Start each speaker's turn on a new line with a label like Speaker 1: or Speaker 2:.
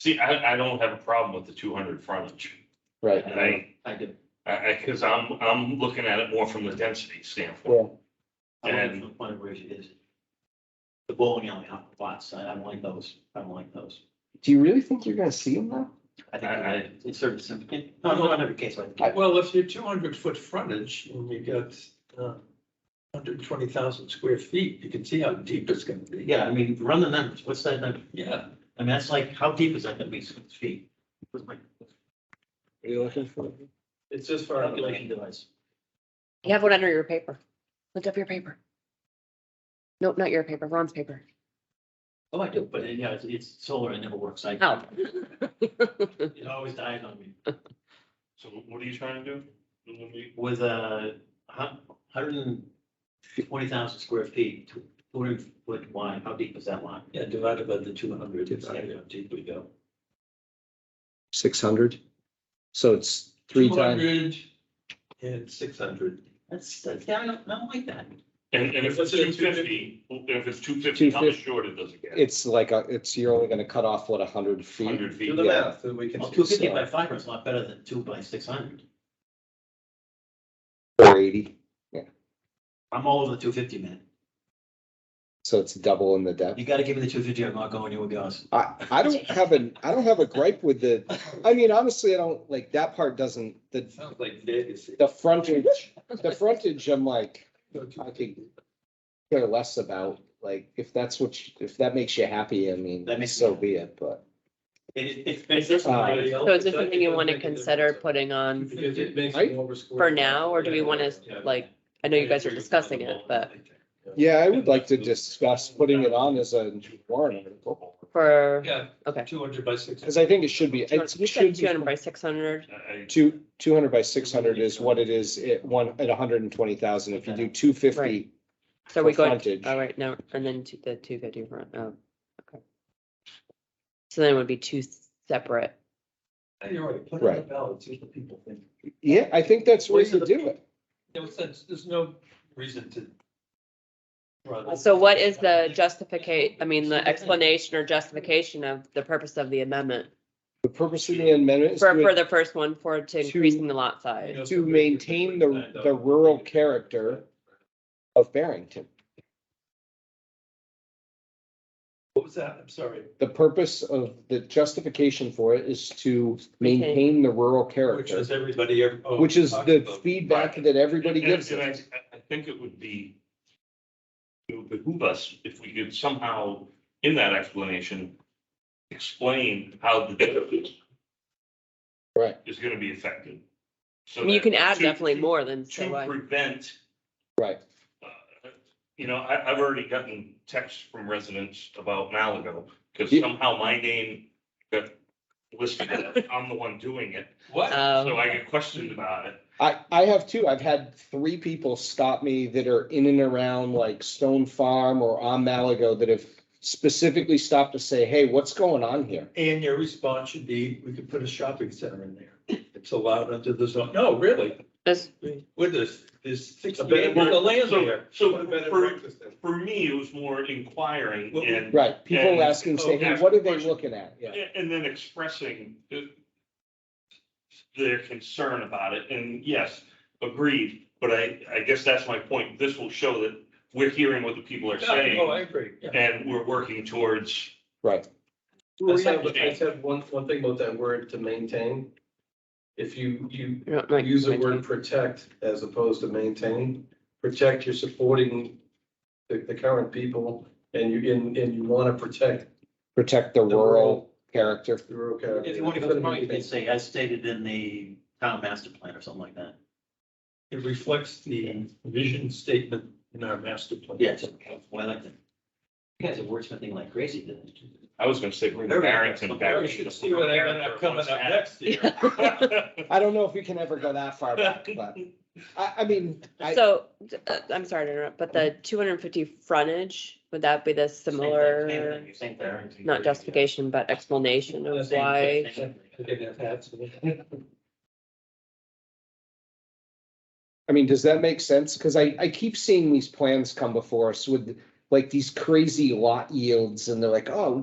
Speaker 1: See, I, I don't have a problem with the two hundred frontage,
Speaker 2: Right.
Speaker 1: and I,
Speaker 3: I do.
Speaker 1: I, I, cause I'm, I'm looking at it more from the density standpoint.
Speaker 2: Yeah,
Speaker 3: I like
Speaker 1: And-
Speaker 3: the point where it is. The bowling alley on the lot side, I don't like those, I don't like those.
Speaker 2: do you really think you're gonna see them though?
Speaker 3: I think
Speaker 1: I- I-
Speaker 3: it- it's sort of simple, no, no, not every case, but I think
Speaker 4: Well, if you're two hundred foot frontage and you got uh hundred twenty thousand square feet, you can see how deep it's gonna be.
Speaker 3: yeah, I mean, run the numbers, what's that number?
Speaker 4: Yeah,
Speaker 3: I mean, that's like, how deep is that gonna be, six feet? What's my
Speaker 2: Are you looking for?
Speaker 5: It's just for.
Speaker 3: calculation device?
Speaker 6: You have one under your paper. Lift up your paper. Nope, not your paper, Ron's paper.
Speaker 3: Oh, I do, but yeah, it's, it's solar, it never works, I.
Speaker 6: Oh.
Speaker 3: It always dies on me.
Speaker 1: So what are you trying to do?
Speaker 3: With a hundred and twenty thousand square feet, two hundred foot wide, how deep is that lot?
Speaker 4: yeah, divided by the two hundred, it's
Speaker 3: Divided.
Speaker 4: how deep we go.
Speaker 2: Six hundred? So it's three times,
Speaker 4: 200 And six hundred.
Speaker 3: That's, that's, I don't, I don't like that.
Speaker 1: And, and if it's
Speaker 5: Let's say
Speaker 1: two fifty, if it's two fifty, how
Speaker 2: 250.
Speaker 1: much shorter does it get?
Speaker 2: it's like, a- it's, you're only gonna cut off what, a hundred feet?
Speaker 1: Hundred
Speaker 4: Do
Speaker 1: feet,
Speaker 4: the
Speaker 2: Yeah.
Speaker 4: math, and we can.
Speaker 3: Well, two fifty by five is a lot better than two by six hundred.
Speaker 2: Or eighty,
Speaker 3: I'm all over the two fifty, man.
Speaker 2: so it's double in the depth.
Speaker 3: You gotta give me the two fifty, I'm not going, you would be honest.
Speaker 2: I, I don't have an, I don't have a gripe with the, I mean, honestly, I don't, like, that part doesn't, the,
Speaker 4: Sounds like Vegas.
Speaker 2: the frontage, the frontage, I'm like, I could care less about, like, if that's what, you- if that makes you happy, I mean,
Speaker 3: That makes me
Speaker 2: so
Speaker 3: happy.
Speaker 2: be it, but.
Speaker 3: It, it's basically.
Speaker 2: Uh,
Speaker 6: So is this something you want to consider putting on?
Speaker 5: Because it makes
Speaker 2: Right?
Speaker 5: it over square.
Speaker 6: For now, or do we wanna,
Speaker 5: Yeah.
Speaker 6: like, I know you guys are discussing it, but
Speaker 2: Yeah, I would like to discuss putting it on as a warrant article,
Speaker 6: for,
Speaker 4: Yeah,
Speaker 6: okay.
Speaker 4: two hundred by six.
Speaker 2: because I think it should be,
Speaker 6: You
Speaker 2: it
Speaker 6: said
Speaker 2: should
Speaker 6: two hundred
Speaker 2: be,
Speaker 6: by six hundred,
Speaker 1: I- I-
Speaker 2: two, two hundred by six hundred is what it is at one, at hundred and twenty thousand, if you do two
Speaker 6: Right.
Speaker 2: fifty.
Speaker 6: so we
Speaker 2: For
Speaker 6: go,
Speaker 2: frontage.
Speaker 6: all right, no, and then two- the two fifty front, oh, okay. So then it would be two separate,
Speaker 4: You're right, put it on the
Speaker 2: Right.
Speaker 4: ballot, see what the people think.
Speaker 2: Yeah, I think that's where you do it.
Speaker 4: No sense, there's no reason to. run it.
Speaker 6: Uh, so what is the justificate, I mean, the explanation or justification of the purpose of the amendment?
Speaker 2: The purpose of the amendment is
Speaker 6: For, for
Speaker 2: to,
Speaker 6: the first one, for to
Speaker 2: Two-
Speaker 6: increasing the lot size,
Speaker 2: to maintain the, the rural character of Barrington.
Speaker 4: What was that? I'm sorry.
Speaker 2: The purpose of, the justification for it is to maintain the rural
Speaker 4: Which
Speaker 2: character,
Speaker 4: is everybody. ever- oh,
Speaker 2: which is
Speaker 4: talked
Speaker 2: the
Speaker 4: about.
Speaker 2: feedback that everybody
Speaker 1: And-
Speaker 2: gives
Speaker 1: and I-
Speaker 2: us.
Speaker 1: I I think it would be, it would behoove us if we could somehow, in that explanation, explain how the density
Speaker 2: Right,
Speaker 1: is gonna be affected. So
Speaker 6: I mean, you
Speaker 1: that-
Speaker 6: can add
Speaker 1: to-
Speaker 6: definitely
Speaker 1: to-
Speaker 6: more than, so
Speaker 1: To
Speaker 6: why-
Speaker 1: prevent,
Speaker 2: right.
Speaker 1: uh, you know, I, I've already gotten texts from residents about Malago, because
Speaker 2: Yeah.
Speaker 1: somehow my name got listed, as I'm the one doing it,
Speaker 4: What?
Speaker 1: so
Speaker 6: um,
Speaker 1: I get questioned about it.
Speaker 2: I, I have too. I've had three people stop me that are in and around like Stone Farm or on Malago that have specifically stopped to say, hey, what's going on here?
Speaker 4: And your response should be, we could put a shopping center in there. It's allowed under the zone. No, really,
Speaker 6: this,
Speaker 4: with this, there's
Speaker 1: A
Speaker 4: sixty
Speaker 1: better
Speaker 4: acres of land
Speaker 1: So-
Speaker 4: there.
Speaker 1: So for, for me, it was more inquiring
Speaker 4: Well,
Speaker 1: and,
Speaker 2: Right, people
Speaker 1: And-
Speaker 2: asking, say, hey, what are they looking at? Yeah,
Speaker 1: and then expressing the- their concern about it. And yes, agreed, but I, I guess that's my point. This will show that we're hearing what the people are
Speaker 4: Yeah, Oh, I
Speaker 1: saying
Speaker 4: agree. Yeah.
Speaker 1: and we're working towards.
Speaker 2: right.
Speaker 5: I said, I said one, one thing about that word to maintain. If you, you
Speaker 6: I don't like-
Speaker 5: use the word protect as opposed to maintain, protect, you're supporting the, the current people and you, and, and you want to protect
Speaker 2: Protect the
Speaker 5: The
Speaker 2: rural
Speaker 5: rural-
Speaker 2: character.
Speaker 5: the rural character.
Speaker 3: If you want to go to, you can say, as stated in the town master plan or something like that.
Speaker 4: It reflects the vision statement in our master plan.
Speaker 3: Yes, well, I like that. You guys are wordsmithing like crazy, didn't you?
Speaker 1: I was gonna say, bring
Speaker 3: Very
Speaker 1: Barrington
Speaker 3: nice.
Speaker 1: back.
Speaker 4: You should see what I end up coming up next year.
Speaker 2: I don't know if we can ever go that far back, but I, I mean, I,
Speaker 6: So, d- uh, I'm sorry to interrupt, but the two hundred and fifty frontage, would that be the
Speaker 3: Same thing, Same
Speaker 6: similar,
Speaker 3: thing, same thing.
Speaker 6: not justification, but explanation of
Speaker 3: Same-
Speaker 6: why?
Speaker 3: same thing.
Speaker 4: Okay, that's absolutely.
Speaker 2: I mean, does that make sense? Cause I, I keep seeing these plans come before us with like these crazy lot yields and they're like, oh,